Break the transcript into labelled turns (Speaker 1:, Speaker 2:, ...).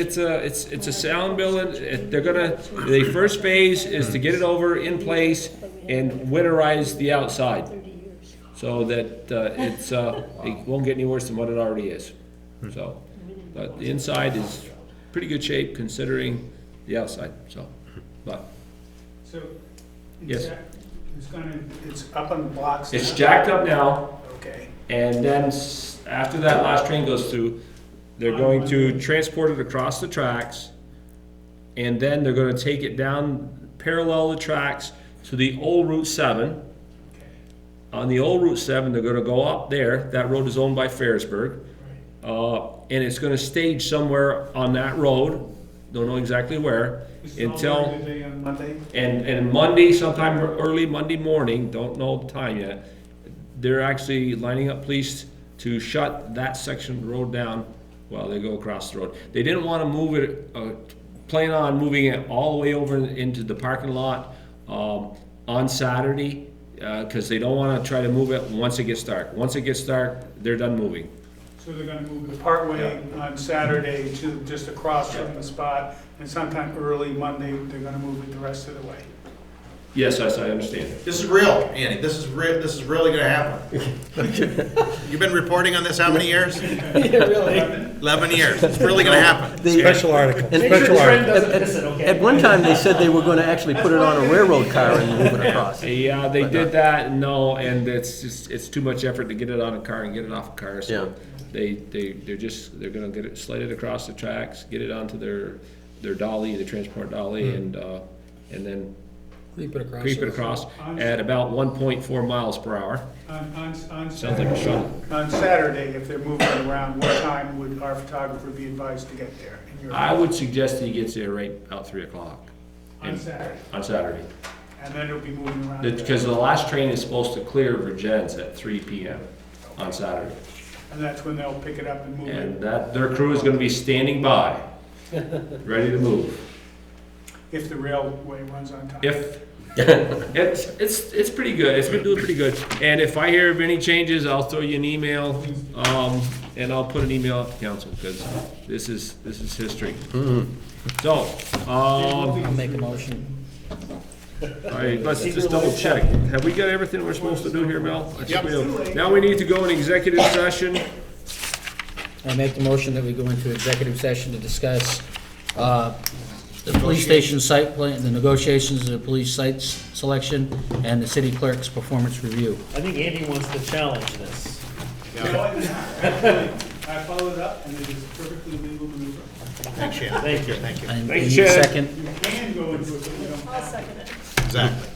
Speaker 1: It's a, it's, it's a sound building, It- they're gonna, the first phase is to get it over in place and winterize the outside. So that, uh, it's, uh, it won't get any worse than what it already is, so. But the inside is pretty good shape considering the outside, so, but,
Speaker 2: So.
Speaker 1: Yes.
Speaker 2: It's gonna, it's up on the blocks.
Speaker 1: it's
Speaker 2: now?
Speaker 1: jacked up now,
Speaker 2: Okay.
Speaker 1: and then s- after that last train goes through, they're going to transport it across the tracks, and then they're gonna take it down, parallel the tracks to the old Route seven. On the old Route seven, they're gonna go up there, that road is owned by Ferrisburg. Uh, and it's gonna stage somewhere on that road, don't know exactly where, until.
Speaker 2: Installed today on Monday?
Speaker 1: And, and Monday, sometime early Monday morning, don't know the time yet, they're actually lining up police to shut that section of the road down while they go across the road. They didn't wanna move it, uh, plan on moving it all the way over into the parking lot, um, on Saturday, uh 'cause cause they don't wanna try to move it once it gets dark. Once it gets dark, they're done moving.
Speaker 2: So they're gonna move the partway on Saturday to just across from the spot, and sometime early Monday, they're gonna move it the rest of the way.
Speaker 1: Yes, yes, I understand.
Speaker 3: This is real, Andy. This is real. This is really going to happen. You've been reporting on this how many years? Eleven years. It's really going to happen.
Speaker 4: Special article, special article.
Speaker 5: At one time, they said they were gonna actually put it on a railroad car and move it across.
Speaker 1: Yeah, they did that, no, and it's just, it's too much effort to get it on a car and get it off a car, so. They, they, they're just, they're gonna get it slided across the tracks, get it onto their, their dolly, the transport dolly, and, uh, and then
Speaker 4: Creep it across.
Speaker 1: creep it across at about one point four miles per hour.
Speaker 2: On, on, on
Speaker 1: Sounds like a
Speaker 2: Saturday,
Speaker 1: shuttle.
Speaker 2: on Saturday, if they're moving around, what time would our photographer be advised to get there? in your-
Speaker 1: I would suggest that he gets there right about three o'clock
Speaker 2: On Saturday,
Speaker 1: on Saturday.
Speaker 2: and then it'll be moving around.
Speaker 1: Because the last train is supposed to clear Virgins at three P M on Saturday.
Speaker 2: And that's when they'll pick it up and move it.
Speaker 1: And that, their crew is gonna be standing by, ready to move.
Speaker 2: If the railway runs on time.
Speaker 1: If, it's, it's, it's pretty good, it's been doing pretty good, and if I hear of any changes, I'll throw you an email, um, and I'll put an email out to council, because this is, this is history. So, um,
Speaker 4: I'll make a motion.
Speaker 1: all right, let's just double check, have we got everything we're supposed to do here, Mel? I think we have. Now we need to go in executive session,
Speaker 4: I make the motion that we go into executive session to discuss uh, the police station site plan, the negotiations of the police site selection, and the city clerk's performance review.
Speaker 6: I think Andy wants to challenge this.
Speaker 2: No, I did not. Actually, I followed up, and it is perfectly legal maneuver.
Speaker 3: Thanks, Shannon.
Speaker 6: Thank you.
Speaker 4: And we
Speaker 1: Thank you,
Speaker 4: need a
Speaker 1: Chad.
Speaker 4: second.
Speaker 2: You can go into it, but you don't have to.
Speaker 3: Exactly.